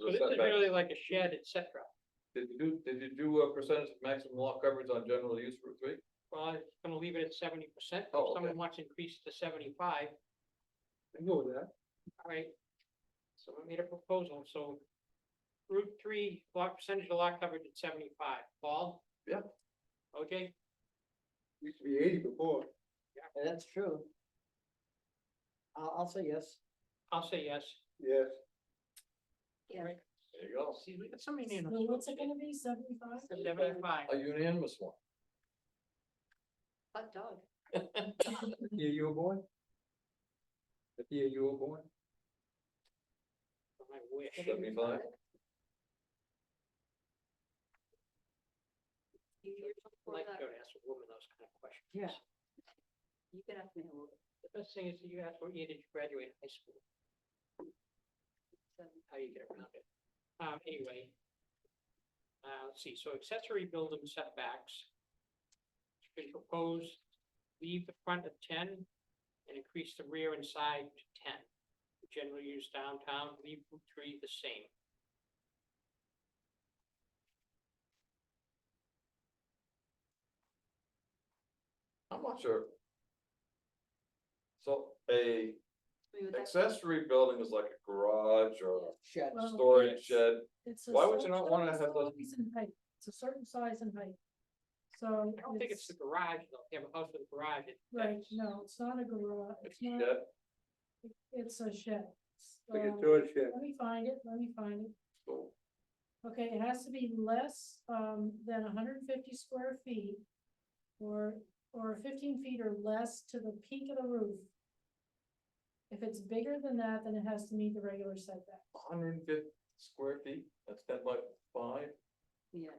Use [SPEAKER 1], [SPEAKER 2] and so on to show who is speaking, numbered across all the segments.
[SPEAKER 1] So
[SPEAKER 2] But it's
[SPEAKER 1] setback,
[SPEAKER 2] really like a shed, et cetera.
[SPEAKER 1] did you do, did you do a percentage of maximum lot coverage on general use Route three?
[SPEAKER 2] Well, I'm gonna leave it at seventy percent,
[SPEAKER 1] Oh,
[SPEAKER 2] if
[SPEAKER 1] okay.
[SPEAKER 2] someone wants to increase to seventy-five,
[SPEAKER 1] I know that.
[SPEAKER 2] all right? So I made a proposal, so Route three, lot percentage of lot coverage at seventy-five, Paul?
[SPEAKER 1] Yeah.
[SPEAKER 2] OJ,
[SPEAKER 1] Used to be eighty before.
[SPEAKER 3] That's true. I'll, I'll say yes.
[SPEAKER 2] I'll say yes.
[SPEAKER 1] Yes.
[SPEAKER 2] All right.
[SPEAKER 1] There you go.
[SPEAKER 2] See, we got somebody
[SPEAKER 4] So
[SPEAKER 2] in.
[SPEAKER 4] what's it gonna be, seventy-five?
[SPEAKER 2] Seventy-five,
[SPEAKER 1] A unanimous one.
[SPEAKER 4] Hot dog.
[SPEAKER 1] Yeah, you were born? Yeah, you were born?
[SPEAKER 2] I wish.
[SPEAKER 1] Seventy-five.
[SPEAKER 4] You were
[SPEAKER 2] I
[SPEAKER 4] before
[SPEAKER 2] Like to
[SPEAKER 4] that.
[SPEAKER 2] go to ask a woman those kind of questions.
[SPEAKER 3] Yeah.
[SPEAKER 4] You can ask me a little.
[SPEAKER 2] The best thing is that you ask what year did you graduate high school,
[SPEAKER 4] bit,
[SPEAKER 2] how you get around it. Um, anyway. Uh, let's see, so accessory building setbacks. Should propose, leave the front at ten and increase the rear and side to ten. Generally used downtown, leave Route three the same.
[SPEAKER 1] I'm not sure. So a
[SPEAKER 4] so we would like-
[SPEAKER 1] accessory building is like a garage or
[SPEAKER 3] Shed.
[SPEAKER 1] a
[SPEAKER 4] Well,
[SPEAKER 1] storage
[SPEAKER 4] yes.
[SPEAKER 1] shed.
[SPEAKER 4] It's a
[SPEAKER 1] Why would you
[SPEAKER 4] certain
[SPEAKER 1] not wanna have
[SPEAKER 4] size
[SPEAKER 1] those-
[SPEAKER 4] and height. It's a certain size and height. So.
[SPEAKER 2] I don't think it's the garage, though, If you have a house with a garage, it's.
[SPEAKER 4] Right, no, it's not a garage, it's
[SPEAKER 1] Yeah,
[SPEAKER 4] not, it's a shed.
[SPEAKER 1] like a
[SPEAKER 4] Um,
[SPEAKER 1] storage shed.
[SPEAKER 4] Let me find it, let me find it.
[SPEAKER 1] So
[SPEAKER 4] Okay, it has to be less um than hundred and fifty square feet. Or or fifteen feet or less to the peak of the roof. If it's bigger than that, then it has to meet the regular setback.
[SPEAKER 1] hundred and fifty square feet, that's ten by five,
[SPEAKER 3] Yeah, I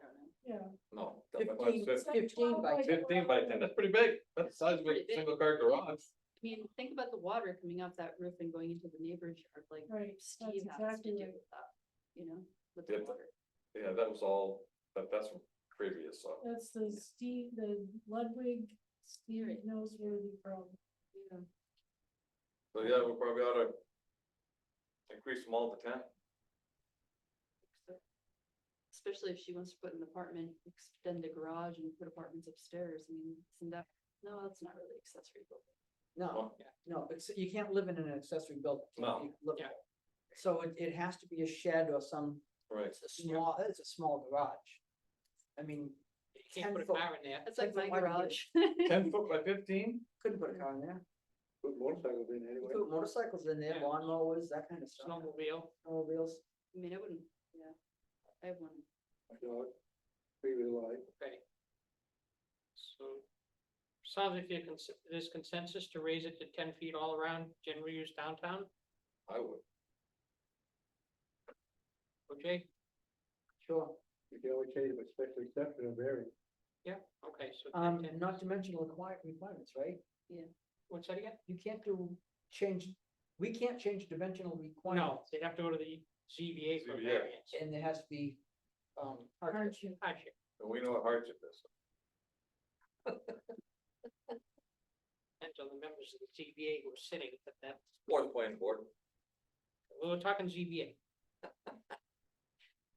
[SPEAKER 4] Yeah.
[SPEAKER 1] no, ten by five,
[SPEAKER 3] 15.
[SPEAKER 1] fif-
[SPEAKER 4] It's like
[SPEAKER 3] 15 by
[SPEAKER 4] 12
[SPEAKER 1] fifteen by ten, that's pretty big. That's the size of a
[SPEAKER 5] Pretty big.
[SPEAKER 1] single car garage.
[SPEAKER 5] I mean, think about the water coming off that roof and going into the neighbor's yard, like
[SPEAKER 4] Right, that's
[SPEAKER 5] Steve has to
[SPEAKER 4] exactly
[SPEAKER 5] do
[SPEAKER 4] right.
[SPEAKER 5] with that, you know, with
[SPEAKER 1] Yeah,
[SPEAKER 5] the
[SPEAKER 1] but-
[SPEAKER 5] water.
[SPEAKER 1] Yeah, that was all, that, that's from previous, so.
[SPEAKER 4] That's the Steve, the Ludwig, Steve
[SPEAKER 5] Right.
[SPEAKER 4] knows where the problem.
[SPEAKER 5] Yeah.
[SPEAKER 1] So yeah, we probably ought to increase them all to ten.
[SPEAKER 5] So- Especially if she wants to put an apartment, extend a garage and put apartments upstairs, I mean, isn't that, no, that's not really accessory building.
[SPEAKER 3] No,
[SPEAKER 1] Well,
[SPEAKER 3] no, it's, you can't live in an accessory building.
[SPEAKER 1] No.
[SPEAKER 3] You live-
[SPEAKER 2] Yeah.
[SPEAKER 3] So it, it has to be a shed or some,
[SPEAKER 1] Right,
[SPEAKER 3] it's a small, it's a small garage. I mean,
[SPEAKER 2] You can't
[SPEAKER 3] 10
[SPEAKER 2] put a
[SPEAKER 3] foot.
[SPEAKER 2] car in there.
[SPEAKER 5] That's like
[SPEAKER 3] That's
[SPEAKER 5] my
[SPEAKER 3] a lot of
[SPEAKER 5] garage.
[SPEAKER 1] ten foot by fifteen?
[SPEAKER 3] couldn't put a car in there,
[SPEAKER 1] Put motorcycles in
[SPEAKER 3] You put motorcycles in there,
[SPEAKER 2] Yeah.
[SPEAKER 3] lawnmowers, that kind of stuff,
[SPEAKER 2] snowmobile.
[SPEAKER 3] snowmobiles.
[SPEAKER 5] I mean, I wouldn't, yeah, I have one.
[SPEAKER 2] Okay. So, sounds like you cons- there's consensus to raise it to ten feet all around general use downtown,
[SPEAKER 1] I would.
[SPEAKER 2] okay?
[SPEAKER 3] Sure,
[SPEAKER 1] You can always change it, special exception or variance.
[SPEAKER 2] Yeah, okay, so
[SPEAKER 3] um,
[SPEAKER 2] 10, 10.
[SPEAKER 3] not to mention require, requirements, right?
[SPEAKER 2] what's that again?
[SPEAKER 3] You can't do, change, we can't change dimensional
[SPEAKER 2] No,
[SPEAKER 3] requirements.
[SPEAKER 2] they'd have to go to the ZBA for
[SPEAKER 1] ZBA.
[SPEAKER 2] variance.
[SPEAKER 3] And there has to be, um, hardship.
[SPEAKER 4] Aren't you?
[SPEAKER 2] Hardship.
[SPEAKER 1] And we know what hardship is.
[SPEAKER 2] Depends on the members of the ZBA who are sitting at that,
[SPEAKER 1] One point board.
[SPEAKER 2] we were talking ZBA,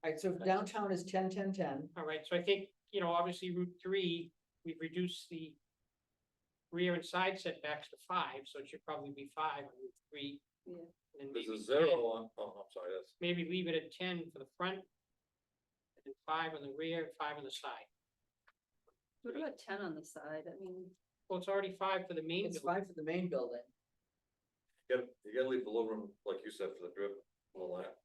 [SPEAKER 3] Alright, so if downtown is ten, ten, ten,
[SPEAKER 2] all right, so I think, you know, obviously Route three, we've reduced the rear and side setbacks to five, so it should probably be five on Route three.
[SPEAKER 5] Yeah.
[SPEAKER 2] And then
[SPEAKER 1] There's
[SPEAKER 2] maybe
[SPEAKER 1] a zero on,
[SPEAKER 2] 10.
[SPEAKER 1] oh, I'm sorry, that's,
[SPEAKER 2] maybe leave it at ten for the front. And five on the rear, five on the side.
[SPEAKER 5] What about ten on the side, I mean,
[SPEAKER 2] Well, it's already five for the main
[SPEAKER 3] it's
[SPEAKER 2] building,
[SPEAKER 3] five for the main building.
[SPEAKER 1] you gotta, you gotta leave the little room, like you said, for the drip, and all that.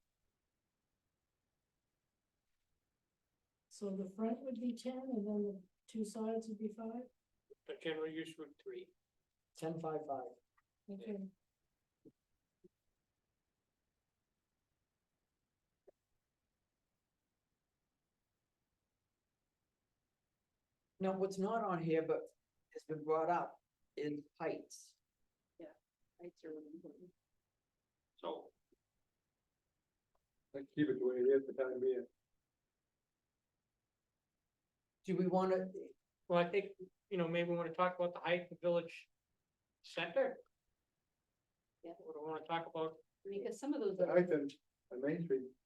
[SPEAKER 4] So the front would be ten and then the two sides would be five?
[SPEAKER 2] but general use Route three.
[SPEAKER 3] Ten, five, five.
[SPEAKER 4] Okay.
[SPEAKER 3] Now, what's not on here, but has been brought up, is heights.
[SPEAKER 5] heights are really important.
[SPEAKER 2] So
[SPEAKER 1] Let's keep it the way it is for time being.
[SPEAKER 3] Do we wanna,
[SPEAKER 2] Well, I think, you know, maybe we wanna talk about the height of the village center.
[SPEAKER 5] Yeah.
[SPEAKER 2] Or do we wanna talk about
[SPEAKER 5] I mean, because some of those. are-
[SPEAKER 1] I think, on Main Street,